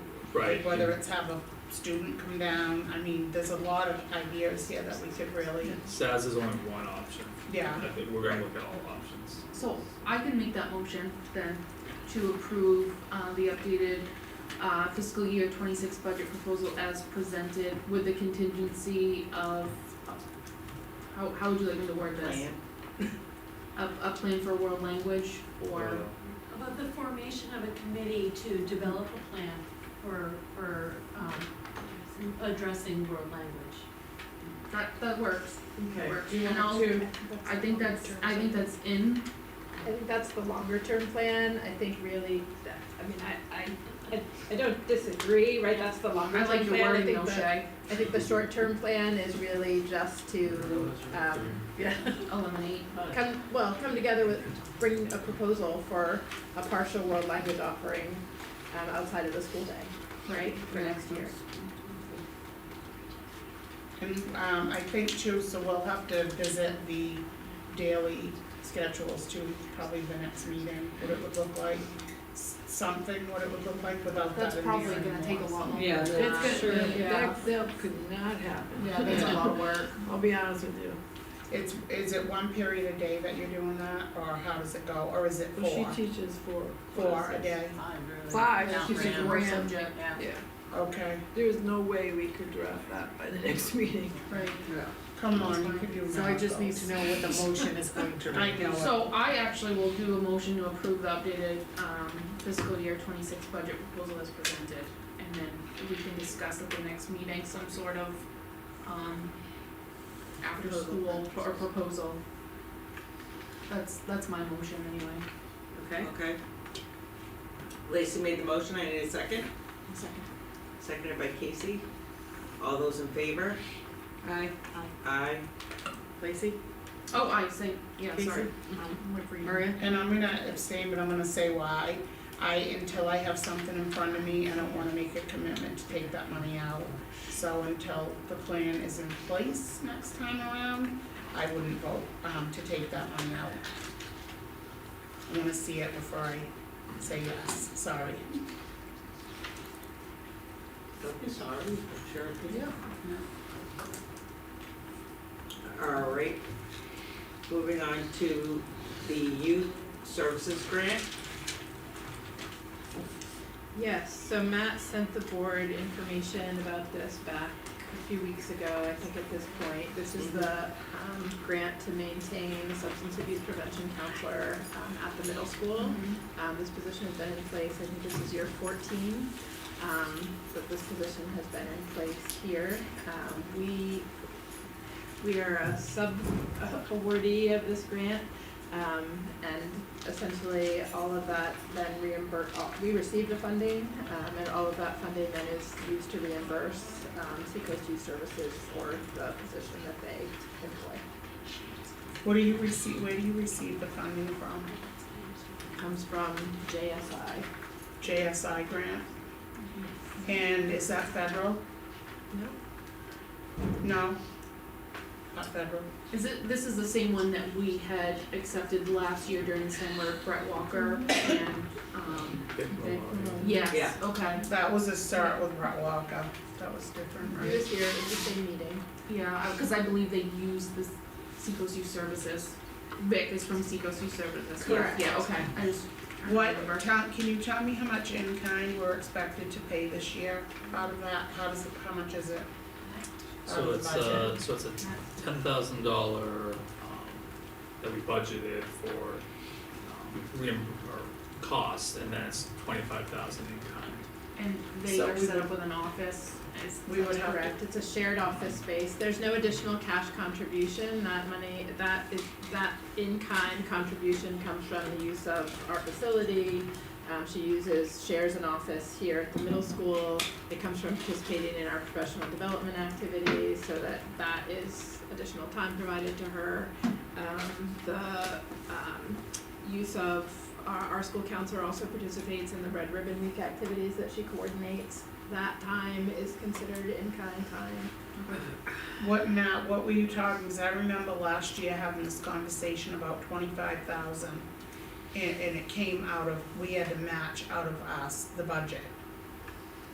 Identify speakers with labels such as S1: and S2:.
S1: Right.
S2: Whether it's have a student come down, I mean, there's a lot of ideas here that we could really,
S1: SAS is only one option.
S2: yeah.
S1: I think we're gonna look at all options.
S3: So I can make that motion then to approve uh the updated uh fiscal year twenty six budget proposal as presented with the contingency of how how would you like me to word this? A a plan for world language or
S4: About the formation of a committee to develop a plan for, for, um, addressing world language.
S3: that that works,
S5: Okay.
S3: works.
S5: Do you
S3: And
S5: want
S3: I'll-
S5: to,
S3: I think that's I think that's in,
S6: I think that's the longer term plan, I think really, that, I mean, I, I, I, I don't disagree, right, that's the longer
S3: I
S6: term plan,
S3: like your
S6: I
S3: wording
S6: think
S3: though,
S6: the,
S3: Shay,
S6: I think the short term plan is really just to, um, yeah,
S3: eliminate, but
S6: come, well, come together with, bring a proposal for a partial world language offering, um, outside of the school day, right, for next year.
S2: And um I think too, so we'll have to visit the daily schedules too, probably the next meeting, what it would look like. s- Something, what it would look like without that
S3: that's
S2: in there
S3: probably
S2: anymore,
S3: gonna take a
S2: so.
S3: lot longer.
S5: yeah,
S3: than that.
S5: that's sure,
S3: Yeah,
S5: that, that could not happen.
S3: yeah, that's a lot of work.
S5: I'll be honest with you.
S2: It's, is it one period a day that you're doing that, or how does it go, or is it
S5: Well, she
S2: four,
S5: teaches four.
S2: four a day?
S5: Five,
S3: Yeah,
S5: she's a
S3: random
S5: grand,
S3: subject,
S5: yeah,
S2: Okay,
S5: there is no way we could draft that by the next meeting.
S3: right.
S2: come on, you can do
S7: So I
S2: math
S7: just need
S2: goals.
S7: to know what the motion is going to be.
S2: I know it.
S3: So I actually will do a motion to approve the updated um fiscal year twenty-six budget proposal as presented. And then we can discuss at the next meeting some sort of um after school pro- or proposal. That's that's my motion
S7: Okay,
S3: anyway.
S8: Okay. Lacey made the motion, I need a second,
S3: Second.
S8: seconded by Casey. All those in favor?
S7: aye,
S8: Aye.
S7: Lacey,
S3: Oh, I say, yeah, sorry.
S7: Casey,
S3: Um, what for you?
S7: Maria,
S2: And I'm gonna abstain, but I'm gonna say why. I, until I have something in front of me, I don't wanna make a commitment to take that money out. So until the plan is in place next time around, I wouldn't vote, um, to take that money out. I wanna see it before I say yes, sorry.
S8: Don't be sorry, I'm sure.
S3: Yeah.
S8: All right. Moving on to the youth services grant.
S6: Yes, so Matt sent the board information about this back a few weeks ago, I think at this point. This is the um grant to maintain the substance abuse prevention counselor um at the middle school. Um this position has been in place, I think this is year fourteen, um that this position has been in place here. Um we we are a sub awardee of this grant. Um and essentially all of that then reimbur- all we receive the funding, um and all of that funding then is used to reimburse um Seacoast Youth Services for the position that they employ.
S2: What do you receive, where do you receive the funding from?
S6: Comes from JSI.
S2: JSI grant? And is that federal?
S6: No.
S2: No? Not federal?
S3: Is it, this is the same one that we had accepted last year during summer, Brett Walker and um,
S8: Yeah.
S3: yes, okay.
S2: That was a start with Brett Walker. That was different,
S6: It
S2: right?
S6: was here, it was the same meeting.
S3: Yeah, because I believe they use the Seacoast Youth Services. Vic is from Seacoast Youth Services. Yeah,
S6: Correct.
S3: Yeah, okay, I just. I
S2: What,
S3: remember.
S2: tell, can you tell me how much in kind we're expected to pay this year out of that? How does it, how much is it? out of
S1: So
S2: the
S1: it's uh,
S2: budget?
S1: a, so it's a ten thousand dollar, um, that we budgeted for, um, reimb- or cost, and then it's twenty-five thousand in kind.
S3: And they
S2: So
S3: are
S2: we
S3: set
S2: would-
S3: up with an office, it's.
S2: We would
S6: That's
S2: have to,
S6: Correct, it's a shared office space, there's no additional cash contribution, that money, that is, that in-kind contribution comes from the use of our facility. Um, she uses, shares an office here at the middle school, it comes from participating in our professional development activities, so that, that is additional time provided to her. Um, the, um, use of, our, our school counselor also participates in the Red Ribbon Week activities that she coordinates. That time is considered in-kind time.
S2: what now, what were you talking, because I remember last year having this conversation about twenty-five thousand. And, and it came out of, we had to match out of us, the budget.